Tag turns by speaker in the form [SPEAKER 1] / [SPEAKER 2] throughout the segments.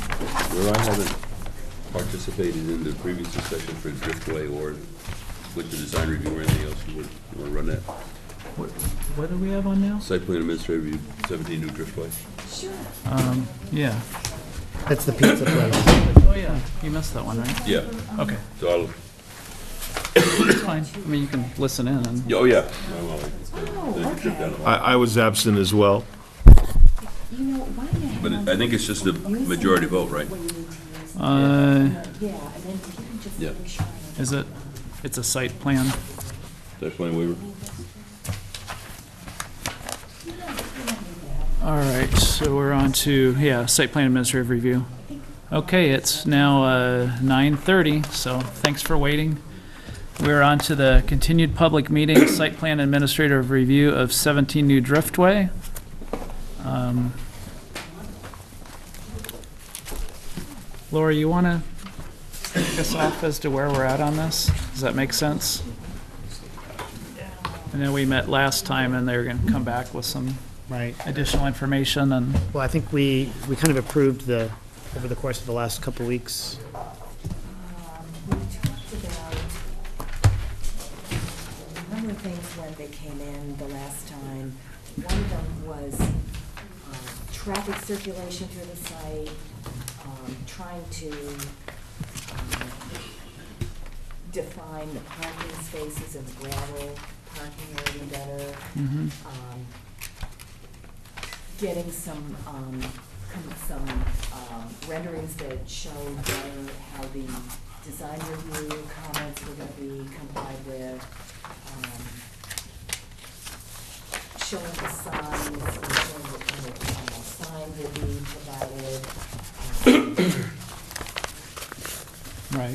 [SPEAKER 1] Sir, I haven't participated in the previous discussion for Driftway or with the design review or anything else. You want to run that?
[SPEAKER 2] What, what do we have on now?
[SPEAKER 1] Site plan administrative review, 17 New Driftway.
[SPEAKER 2] Um, yeah.
[SPEAKER 3] That's the pizza place.
[SPEAKER 2] Oh, yeah, you missed that one, right?
[SPEAKER 1] Yeah,
[SPEAKER 2] Okay,
[SPEAKER 1] so I'll,
[SPEAKER 2] it's fine. I mean, you can listen in and,
[SPEAKER 1] yeah, oh, yeah. Well, well, I- I took a trip down the-
[SPEAKER 4] I, I was absent as well.
[SPEAKER 5] You know, why the hell?
[SPEAKER 1] But it- I think it's just a majority vote, right?
[SPEAKER 5] When you need to use it.
[SPEAKER 2] uh,
[SPEAKER 5] Yeah, and then if you can just
[SPEAKER 1] Yeah.
[SPEAKER 5] make sure.
[SPEAKER 2] is it, it's a site plan?
[SPEAKER 1] Site plan waiver?
[SPEAKER 2] All right, so we're on to, yeah, site plan administrative review. Okay, it's now uh, 9:30, so thanks for waiting. We're on to the continued public meeting, site plan administrative review of 17 New Driftway. Um, Laura, you want to kick us off as to where we're at on this? Does that make sense? I know we met last time, and they were going to come back with some
[SPEAKER 3] Right.
[SPEAKER 2] additional information and,
[SPEAKER 3] Well, I think we, we kind of approved the, over the course of the last couple of weeks.
[SPEAKER 5] Um, We talked about a number of things when they came in the last time. One of them was um, traffic circulation through the site, um, trying to um, define the parking spaces and the gravel parking area better. um, getting some, um, com- some um, renderings that show better how the design review comments were gonna be complied with. um, Showing the signs, and showing what kind of uh, signs will be provided. um,
[SPEAKER 2] right,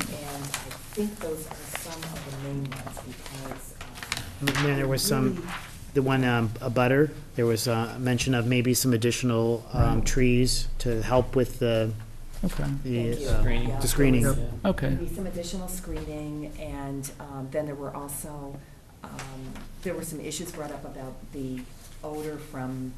[SPEAKER 5] And I think those are some of the main ones because. um,
[SPEAKER 3] And then there was some,
[SPEAKER 5] really-
[SPEAKER 3] the one, um, a butter, there was a mention of maybe some additional, um, trees to help with the,
[SPEAKER 2] okay,
[SPEAKER 3] the,
[SPEAKER 5] Thank you.
[SPEAKER 3] uh,
[SPEAKER 5] Yeah,
[SPEAKER 3] the screening.
[SPEAKER 5] there was
[SPEAKER 2] okay,
[SPEAKER 5] Maybe some additional screening, and um, then there were also, um, there were some issues brought up about the odor from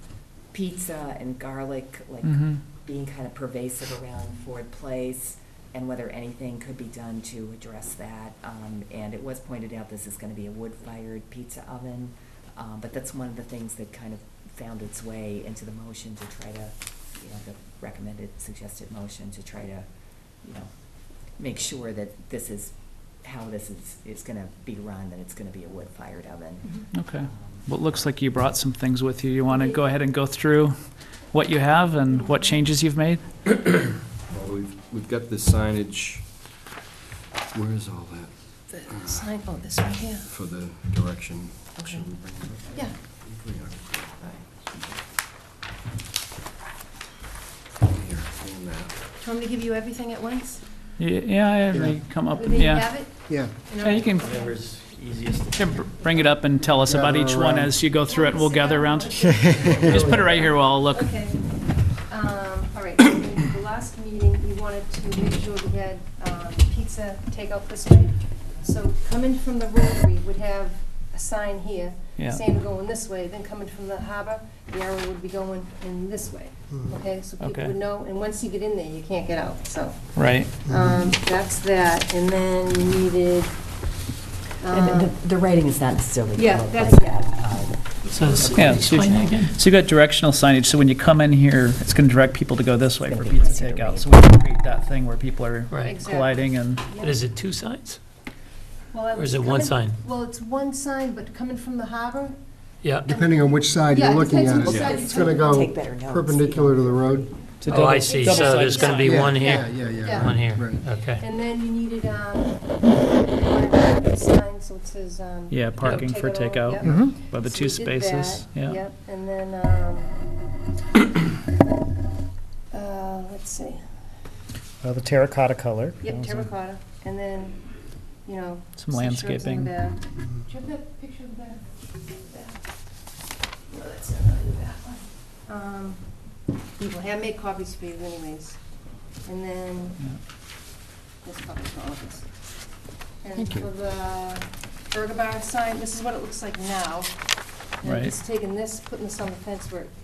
[SPEAKER 5] pizza and garlic, like,
[SPEAKER 2] mhm,
[SPEAKER 5] being kind of pervasive around Ford Place, and whether anything could be done to address that. Um, And it was pointed out this is going to be a wood-fired pizza oven, um, but that's one of the things that kind of found its way into the motion to try to, you know, the recommended, suggested motion to try to, you know, make sure that this is, how this is, is going to be run, that it's going to be a wood-fired oven.
[SPEAKER 6] Mm-hmm.
[SPEAKER 2] okay. Well, it looks like you brought some things with you. You want to go ahead and go through what you have and what changes you've made?
[SPEAKER 7] Well, We've, we've got the signage, where is all that
[SPEAKER 6] The sign, oh, this right here,
[SPEAKER 7] for the direction?
[SPEAKER 6] Okay.
[SPEAKER 7] Should we bring it up?
[SPEAKER 6] yeah.
[SPEAKER 7] I think we
[SPEAKER 6] All right.
[SPEAKER 7] are. Here, and that.
[SPEAKER 6] Do you want me to give you everything at once?
[SPEAKER 2] Y- Yeah, I may come up,
[SPEAKER 6] Everything you
[SPEAKER 2] yeah.
[SPEAKER 6] have it?
[SPEAKER 3] Yeah.
[SPEAKER 6] You know?
[SPEAKER 2] Yeah, you can
[SPEAKER 8] Whatever's easiest.
[SPEAKER 2] can br- bring it up and tell us about each one as you go through it, and we'll gather around. Just put it right here while I'll look.
[SPEAKER 6] Okay. Um, All right, so in the last meeting, we wanted to make sure we had um, pizza takeout this way. So coming from the rotary, would have a sign here,
[SPEAKER 2] Yeah.
[SPEAKER 6] saying going this way, then coming from the harbor, the arrow would be going in this way, okay? So
[SPEAKER 2] Okay.
[SPEAKER 6] people would know, and once you get in there, you can't get out, so.
[SPEAKER 2] Right,
[SPEAKER 6] Um, that's that, and then you needed,
[SPEAKER 5] And
[SPEAKER 6] um,
[SPEAKER 5] the- the writing is not necessarily.
[SPEAKER 6] Yeah,
[SPEAKER 5] colored
[SPEAKER 6] that's-
[SPEAKER 5] like that. Um,
[SPEAKER 2] yeah. So you've so you've got directional signage, so when you come in here, it's going to direct people to go this way for pizza takeout. So we can create that thing where people are
[SPEAKER 8] Right.
[SPEAKER 6] Exactly.
[SPEAKER 2] colliding and,
[SPEAKER 8] But is it two signs?
[SPEAKER 6] well, I
[SPEAKER 8] Or is
[SPEAKER 6] was
[SPEAKER 8] it one
[SPEAKER 6] coming-
[SPEAKER 8] sign?
[SPEAKER 6] Well, it's one sign, but coming from the harbor,
[SPEAKER 8] Yeah.
[SPEAKER 9] Depending on which side
[SPEAKER 6] Yeah,
[SPEAKER 9] you're
[SPEAKER 6] it
[SPEAKER 9] looking
[SPEAKER 6] depends
[SPEAKER 9] at,
[SPEAKER 6] which
[SPEAKER 9] it.
[SPEAKER 6] side you
[SPEAKER 9] it's going to
[SPEAKER 6] take.
[SPEAKER 9] go
[SPEAKER 5] Take better notes.
[SPEAKER 9] perpendicular to the road.
[SPEAKER 2] to
[SPEAKER 8] Oh, I
[SPEAKER 2] double
[SPEAKER 8] see,
[SPEAKER 2] double
[SPEAKER 8] so
[SPEAKER 2] sided
[SPEAKER 8] there's gonna be
[SPEAKER 2] sign.
[SPEAKER 8] one
[SPEAKER 9] Yeah,
[SPEAKER 8] here,
[SPEAKER 9] yeah, yeah.
[SPEAKER 8] one here,
[SPEAKER 9] Right.
[SPEAKER 8] okay.
[SPEAKER 6] and then you needed, um, one of the sign, so it says, um.
[SPEAKER 2] Yeah, parking for
[SPEAKER 6] Take it all,
[SPEAKER 2] takeout,
[SPEAKER 6] yep.
[SPEAKER 3] Mm-hmm.
[SPEAKER 2] by the
[SPEAKER 6] So
[SPEAKER 2] two
[SPEAKER 6] we did
[SPEAKER 2] spaces,
[SPEAKER 6] that,
[SPEAKER 2] yeah.
[SPEAKER 6] Yep, and then, um, uh, let's see,
[SPEAKER 3] Well, Uh, the terracotta color.
[SPEAKER 6] yep, terracotta, and then, you know.
[SPEAKER 2] Some
[SPEAKER 6] some shrubs in
[SPEAKER 2] landscaping.
[SPEAKER 6] the back. Mm-hmm. Do you have that picture of the back? Back. No, that's not really the back one. Um, Well, I made copies for you anyways, and then. This copy's for all of us. And
[SPEAKER 3] Thank you.
[SPEAKER 6] for the burger bar sign, this is what it looks like now. And I'm
[SPEAKER 2] Right.
[SPEAKER 6] just taking this, putting this on the fence where it